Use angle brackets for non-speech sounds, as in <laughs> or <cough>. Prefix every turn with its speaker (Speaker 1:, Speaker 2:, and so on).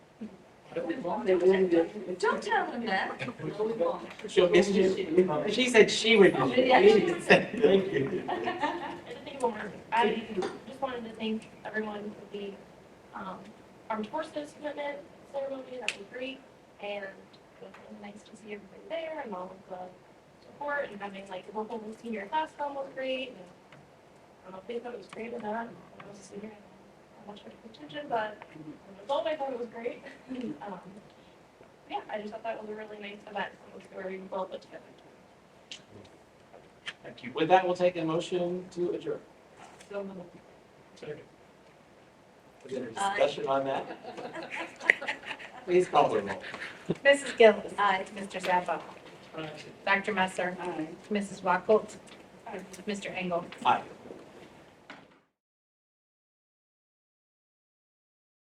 Speaker 1: Don't tell him that.
Speaker 2: She'll miss you. She said she would miss you. I didn't say thank you.
Speaker 3: Just think one more. I just wanted to thank everyone for the um, Armed Forces Commitment Ceremony, that was great. And it was really nice to see everybody there and all of the support and having like the whole senior class film was great. And I don't know if they thought it was great or not. I was a senior, I watched it with attention, but as an adult, I thought it was great. <laughs> Um, Yeah, I just thought that was a really nice event. It was very well put together.
Speaker 2: Thank you. With that, we'll take a motion to adjourn. Is there a discussion on that? Please call the roll.
Speaker 4: Mrs. Gillis.
Speaker 1: Aye.
Speaker 4: Mr. Zappa. Dr. Messer. Mrs. Wackolt. Mr. Engel.
Speaker 2: Aye.